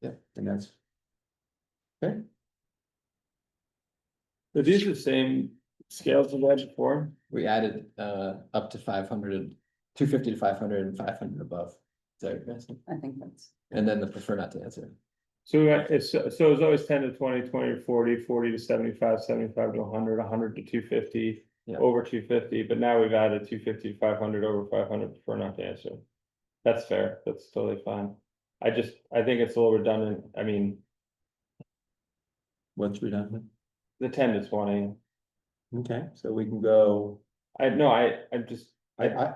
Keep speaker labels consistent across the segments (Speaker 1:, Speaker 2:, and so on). Speaker 1: Yeah, and that's. Okay,
Speaker 2: Are these the same scales we had before?
Speaker 1: we added uh up to five hundred, two fifty to five hundred and five hundred above. Is that what you're asking?
Speaker 3: I think that's.
Speaker 1: And then the prefer not to answer.
Speaker 2: So we got- it's, so it's always ten to 20, 20 or 40, 40 to 75, 75 to hundred, hundred to two fifty.
Speaker 1: Yeah.
Speaker 2: Over two fifty, but now we've added two fifty to five hundred over five hundred for not to answer. That's fair, that's totally fine. I just, I think it's a little redundant, I mean,
Speaker 1: Once we're done.
Speaker 2: the ten to twenty,
Speaker 1: Okay, so we can go,
Speaker 2: I no, I, I'm just,
Speaker 1: I I.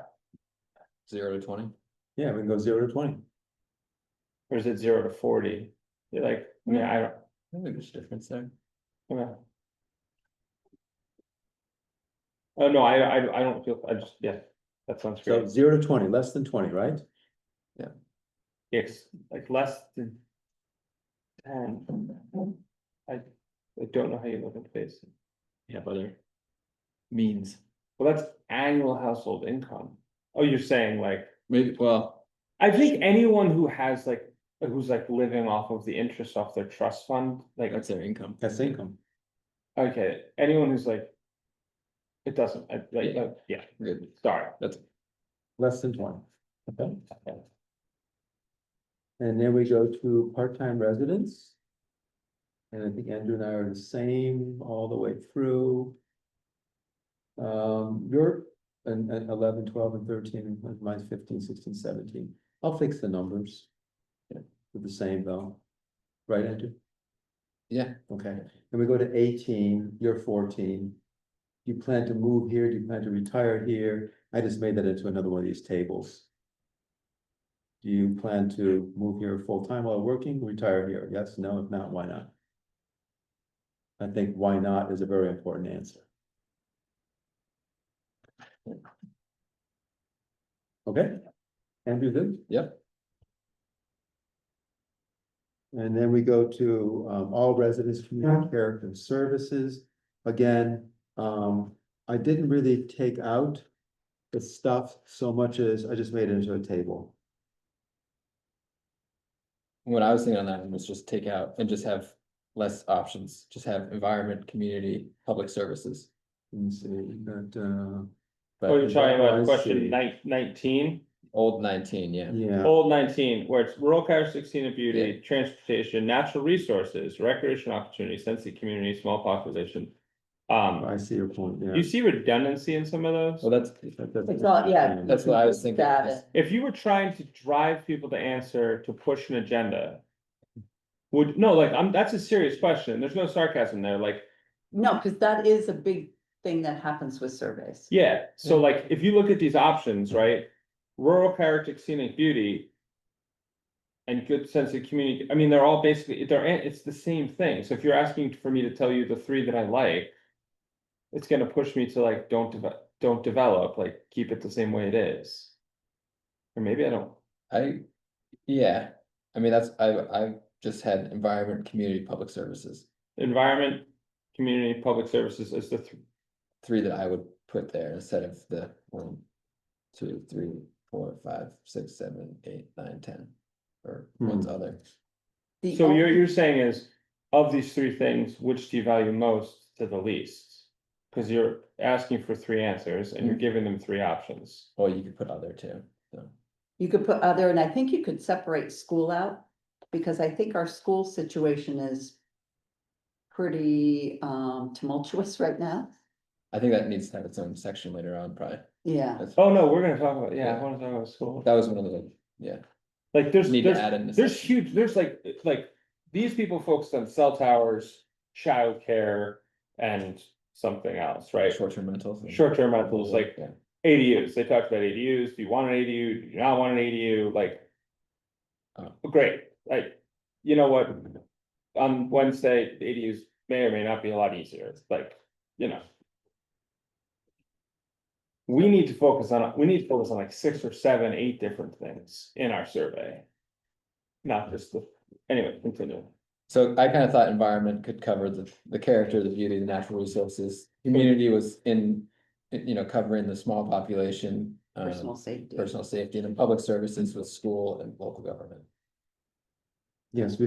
Speaker 1: Zero to twenty? Yeah, we can go zero to twenty.
Speaker 2: or is it zero to forty? You're like, I mean, I don't,
Speaker 1: I think there's a difference there.
Speaker 2: Yeah. Oh, no, I, I, I don't feel, I just, yeah, that sounds
Speaker 4: So
Speaker 2: great.
Speaker 4: zero to twenty, less than twenty, right?
Speaker 2: It's like less than. Ten. I, I don't know how you look at face.
Speaker 1: Yeah, other Means,
Speaker 2: Well, that's annual household income. Oh, you're saying like,
Speaker 1: maybe, well,
Speaker 2: I think anyone who has like, who's like living off of the interest off their trust fund, like,
Speaker 1: that's their income.
Speaker 4: That's income.
Speaker 2: okay, anyone who's like. It doesn't, I, like, uh, yeah,
Speaker 1: Good.
Speaker 2: sorry.
Speaker 4: Less than twenty. Okay. And then we go to part-time residents. And I think Andrew and I are the same all the way through. Um, you're and and eleven, twelve and thirteen, and mine's 15, 16, 17. i I'll fix the numbers. Yeah, They're the same though. Right, Andrew?
Speaker 1: Yeah.
Speaker 4: Okay, and we go to eighteen, you're fourteen. Do you plan to move here? Do you plan to retire here? I just made that into another one of these tables. Do you plan to move here full-time while working, retire here? Yes, no, if not, why not? I think why not is a very important answer. Okay, Andrew, good?
Speaker 1: Yep.
Speaker 4: And then we go to um all residents, community care and services. Again, um, I didn't really take out the stuff so much as I just made it into a table.
Speaker 1: What I was thinking on that one was just take out and just have less options, just have environment, community, public services.
Speaker 4: Let me see, we got, uh,
Speaker 2: Oh, you're
Speaker 1: But
Speaker 2: talking
Speaker 4: I
Speaker 2: about
Speaker 4: see.
Speaker 2: question nine- nineteen?
Speaker 1: old nineteen, yeah,
Speaker 4: yeah,
Speaker 2: Old nineteen, where it's rural care, sixteen of beauty, transportation, natural resources, recreation opportunities, sensory community, small population. Um,
Speaker 4: I see your point, yeah.
Speaker 2: you see redundancy in some of
Speaker 1: well,
Speaker 2: those.
Speaker 1: that's,
Speaker 4: That- that's-
Speaker 3: It's all- yeah.
Speaker 1: that's what I was thinking.
Speaker 3: Got
Speaker 1: is-
Speaker 3: it.
Speaker 2: If you were trying to drive people to answer to push an agenda. Would, no, like, I'm, that's a serious question. There's no sarcasm there. Like,
Speaker 3: No, because that is a big thing that happens with surveys.
Speaker 2: yeah, so like, if you look at these options, right? Rural character, scenic beauty. And good sense of community, I mean, they're all basically, they're, it's the same thing, so if you're asking for me to tell you the three that I like. It's gonna push me to like, don't develop, don't develop, like, keep it the same way it is. Or maybe I don't,
Speaker 1: I, yeah, I mean, that's, I, I just had environment, community, public services,
Speaker 2: environment, community, public services is the, th-
Speaker 1: three that I would put there instead of the one, two, three, four, five, six, seven, eight, nine, ten, or one's other.
Speaker 3: The
Speaker 2: so you're,
Speaker 3: only-
Speaker 2: you're saying is. Of these three things, which do you value most to the least? Cause you're asking for three answers and you're
Speaker 1: Mm.
Speaker 2: giving them three options.
Speaker 1: Or you could put other too, so,
Speaker 3: You could put other, and I think you could separate school out, because I think our school situation is pretty um tumultuous right now.
Speaker 1: I think that needs to have its own section later on, probably.
Speaker 3: Yeah,
Speaker 1: That's-
Speaker 2: Oh, no, we're gonna talk about, yeah,
Speaker 1: Yeah.
Speaker 2: I wanna talk about school.
Speaker 1: That was one of the, yeah,
Speaker 2: Like, there's,
Speaker 1: need to
Speaker 2: there's,
Speaker 1: add in. a
Speaker 2: there's
Speaker 1: section.
Speaker 2: huge, there's like, like, these people focused on cell towers, childcare. And something else, right?
Speaker 1: Short-term rentals. and-
Speaker 2: Short-term rentals, like,
Speaker 1: Yeah,
Speaker 2: ADUs, they talked about ADUs, do you want an ADU, do you not want an ADU, like. uh,
Speaker 1: Oh.
Speaker 2: Great, like, you know what, on Wednesday, the ADUs may or may not be a lot easier, it's like, you know. We need to focus on, we need to focus on like six or seven, eight different things in our survey. Not just the, anyway, continue.
Speaker 1: so I kind of thought environment could cover the, the character, the beauty, the natural resources. Community was in, you know, covering the small population. um,
Speaker 3: personal safety.
Speaker 1: Personal safety and then public services with school and local government.
Speaker 4: Yes, we